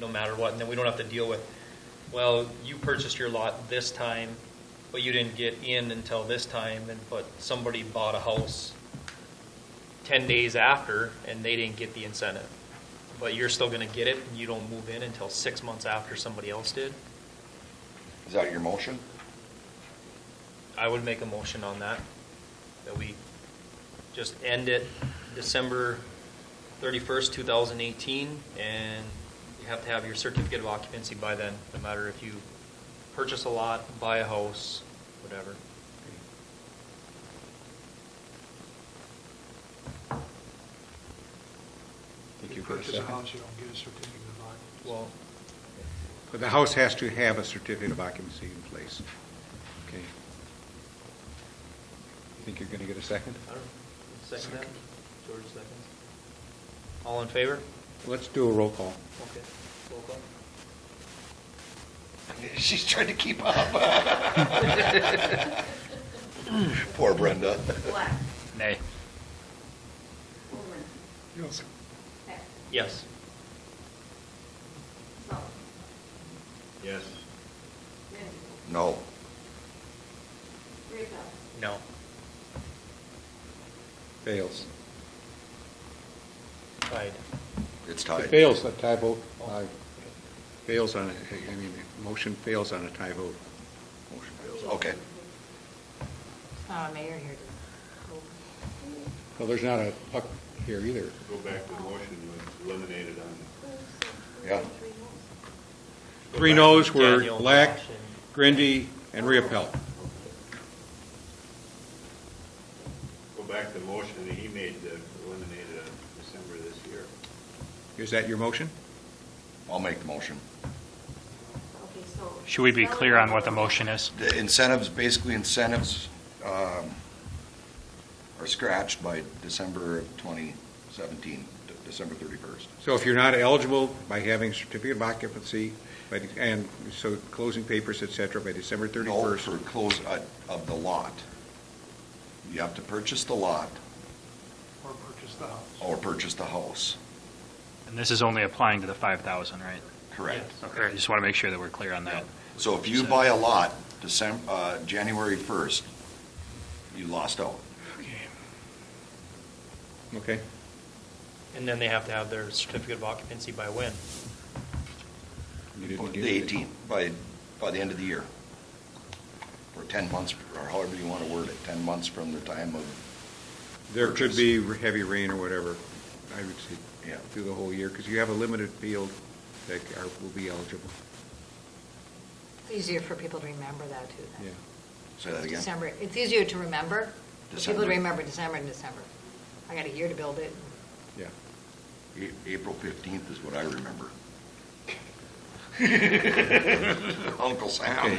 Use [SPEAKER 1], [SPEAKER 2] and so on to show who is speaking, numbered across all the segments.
[SPEAKER 1] no matter what, and then we don't have to deal with, well, you purchased your lot this time, but you didn't get in until this time, and but somebody bought a house ten days after, and they didn't get the incentive. But you're still gonna get it, and you don't move in until six months after somebody else did.
[SPEAKER 2] Is that your motion?
[SPEAKER 1] I would make a motion on that, that we just end it December thirty-first, two thousand eighteen, and you have to have your certificate of occupancy by then, no matter if you purchase a lot, buy a house, whatever.
[SPEAKER 3] If you purchase a house, you don't get a certificate of occupancy.
[SPEAKER 1] Well,
[SPEAKER 4] But the house has to have a certificate of occupancy in place. Okay. Think you're going to get a second?
[SPEAKER 1] I don't, second that, George seconds. All in favor?
[SPEAKER 4] Let's do a roll call.
[SPEAKER 1] Okay, roll call.
[SPEAKER 2] She's trying to keep up. Poor Brenda.
[SPEAKER 5] Black,
[SPEAKER 1] Nay.
[SPEAKER 5] Wolverine,
[SPEAKER 3] Yes.
[SPEAKER 5] Heck,
[SPEAKER 1] Yes.
[SPEAKER 5] Sullivan,
[SPEAKER 6] Yes.
[SPEAKER 5] Lindsey,
[SPEAKER 2] No.
[SPEAKER 5] Rayfeld,
[SPEAKER 1] No.
[SPEAKER 4] Fails.
[SPEAKER 1] Tied.
[SPEAKER 2] It's
[SPEAKER 4] It
[SPEAKER 2] tied.
[SPEAKER 4] fails, a tie vote. Aye. Fails on, a- I mean, the motion fails on a tie vote.
[SPEAKER 2] Motion fails. Okay.
[SPEAKER 7] Uh, Mayor here.
[SPEAKER 4] Well, there's not a puck here either.
[SPEAKER 6] Go back to the motion, was eliminated on.
[SPEAKER 2] Yeah.
[SPEAKER 4] Three noes were
[SPEAKER 1] Daniel,
[SPEAKER 4] Black,
[SPEAKER 1] Josh, and-
[SPEAKER 4] Grindy, and Riappel.
[SPEAKER 6] Go back to the motion that he made, that eliminated on December this year.
[SPEAKER 4] Is that your motion?
[SPEAKER 2] I'll make the motion.
[SPEAKER 5] okay, so.
[SPEAKER 8] Should we be clear on what the motion is?
[SPEAKER 2] The incentives, basically incentives, um, are scratched by December of 2017, De- December 31st.
[SPEAKER 4] So if you're not eligible by having certificate of occupancy, by the- and so closing papers, et cetera, by December
[SPEAKER 2] No,
[SPEAKER 4] 31st.
[SPEAKER 2] For close, uh, of the lot. You have to purchase the lot
[SPEAKER 3] Or purchase the house.
[SPEAKER 4] Oh,
[SPEAKER 2] or purchase the house.
[SPEAKER 8] And this is only applying to the 5,000, right?
[SPEAKER 2] Correct.
[SPEAKER 8] Okay, I just want to make sure that we're clear on that.
[SPEAKER 2] So if you buy a lot December, uh, January 1st, you lost out.
[SPEAKER 4] Okay.
[SPEAKER 1] And then they have to have their certificate of occupancy by when?
[SPEAKER 4] You
[SPEAKER 2] The
[SPEAKER 4] didn't do that.
[SPEAKER 2] 18th, by, by the end of the year. Or 10 months, or however you want to word it, 10 months from the time of,
[SPEAKER 4] There could be heavy rain or whatever, I would say,
[SPEAKER 2] Yeah.
[SPEAKER 4] through the whole year, because you have a limited field that are, will be eligible,
[SPEAKER 7] It's easier for people to remember that too then.
[SPEAKER 4] yeah.
[SPEAKER 2] say that again?
[SPEAKER 7] December, it's easier to remember, for people
[SPEAKER 2] December.
[SPEAKER 7] to remember December and December. I got a year to build it.
[SPEAKER 4] Yeah.
[SPEAKER 2] A- April 15th is what I remember. Uncle Sam.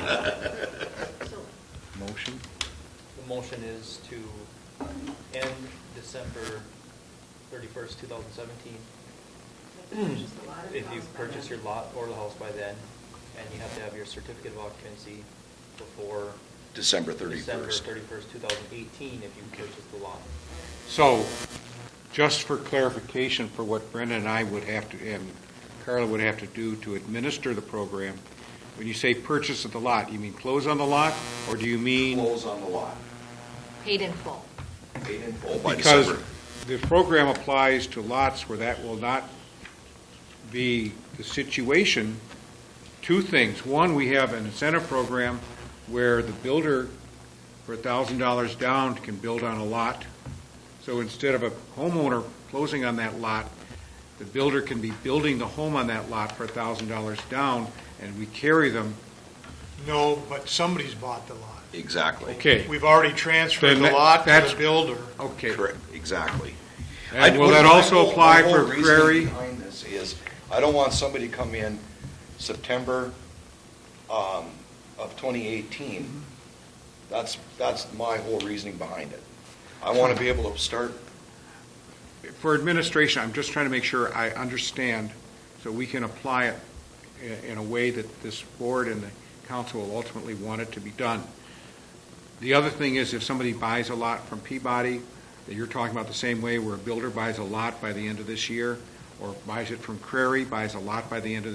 [SPEAKER 4] Motion?
[SPEAKER 1] The motion is to end December 31st, 2017. If you purchase your lot or the house by then, and you have to have your certificate of occupancy before
[SPEAKER 2] December
[SPEAKER 1] December
[SPEAKER 2] 31st.
[SPEAKER 1] 31st, 2018, if you purchase the lot.
[SPEAKER 4] So, just for clarification for what Brenda and I would have to, and Carla would have to do to administer the program, when you say purchase of the lot, you mean close on the lot, or do you mean?
[SPEAKER 2] Close on the lot.
[SPEAKER 7] Paid in full.
[SPEAKER 2] Paid in full by
[SPEAKER 4] Because
[SPEAKER 2] December.
[SPEAKER 4] the program applies to lots where that will not be the situation. Two things. One, we have an incentive program where the builder, for thousand dollars down, can build on a lot. So instead of a homeowner closing on that lot, the builder can be building the home on that lot for thousand dollars down, and we carry them.
[SPEAKER 3] No, but somebody's bought the lot.
[SPEAKER 2] Exactly.
[SPEAKER 4] Okay.
[SPEAKER 3] We've already transferred
[SPEAKER 4] Then
[SPEAKER 3] the
[SPEAKER 4] that-
[SPEAKER 3] lot to
[SPEAKER 4] that's-
[SPEAKER 3] the builder.
[SPEAKER 4] Okay.
[SPEAKER 2] Correct, exactly.
[SPEAKER 4] And
[SPEAKER 2] I-
[SPEAKER 4] will that
[SPEAKER 2] my
[SPEAKER 4] also
[SPEAKER 2] whole-
[SPEAKER 4] apply
[SPEAKER 2] my whole
[SPEAKER 4] for
[SPEAKER 2] reasoning
[SPEAKER 4] Prairie?
[SPEAKER 2] Behind this is, I don't want somebody to come in September um, of 2018. That's, that's my whole reasoning behind it. I want to be able to start,
[SPEAKER 4] for administration, I'm just trying to make sure I understand, so we can apply it i- in a way that this board and the council will ultimately want it to be done. The other thing is, if somebody buys a lot from Peabody, that you're talking about the same way, where a builder buys a lot by the end of this year, or buys it from Crary, buys a lot by the end of